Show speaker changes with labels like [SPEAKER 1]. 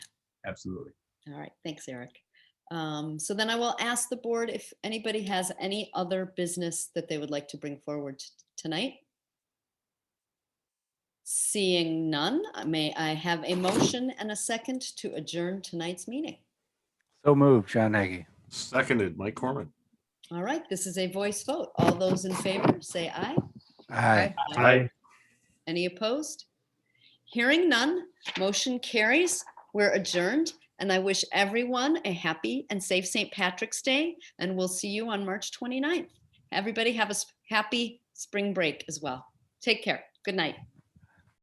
[SPEAKER 1] absolutely.
[SPEAKER 2] All right, thanks, Eric. Um, So then I will ask the board if anybody has any other business that they would like to bring forward t- tonight. Seeing none, uh, may I have a motion and a second to adjourn tonight's meeting?
[SPEAKER 3] So moved, John Nagy.
[SPEAKER 4] Seconded, Mike Corman.
[SPEAKER 2] All right, this is a voice vote. All those in favor, say aye.
[SPEAKER 3] Aye.
[SPEAKER 2] Any opposed? Hearing none, motion carries. We're adjourned, and I wish everyone a happy and safe St. Patrick's Day, and we'll see you on March 29th. Everybody have a s- happy spring break as well. Take care. Good night.